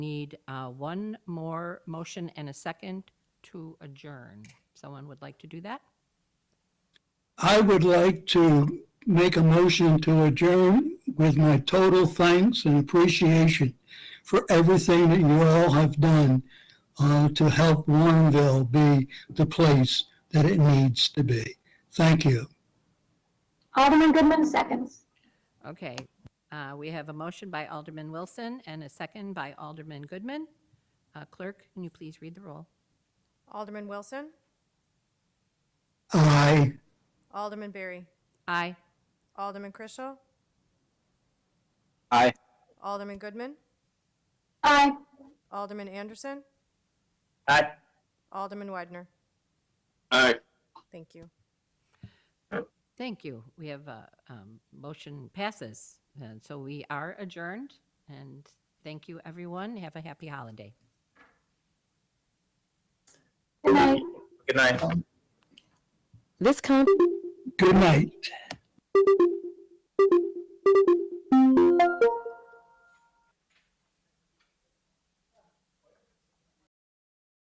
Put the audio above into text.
need uh, one more motion and a second to adjourn. Someone would like to do that? I would like to make a motion to adjourn with my total thanks and appreciation for everything that you all have done uh, to help Warrenville be the place that it needs to be. Thank you. Alderman Goodman seconds. Okay, uh, we have a motion by Alderman Wilson and a second by Alderman Goodman. Uh, Clerk, can you please read the roll? Alderman Wilson, I, Alderman Berry, Aye. Alderman Chrisell, Aye. Alderman Goodman, Aye. Alderman Anderson, Aye. Alderman Widener. Aye. Thank you. Thank you. We have a um, motion passes. And so we are adjourned. And thank you, everyone. Have a happy holiday. Good night. Good night. This con- good night.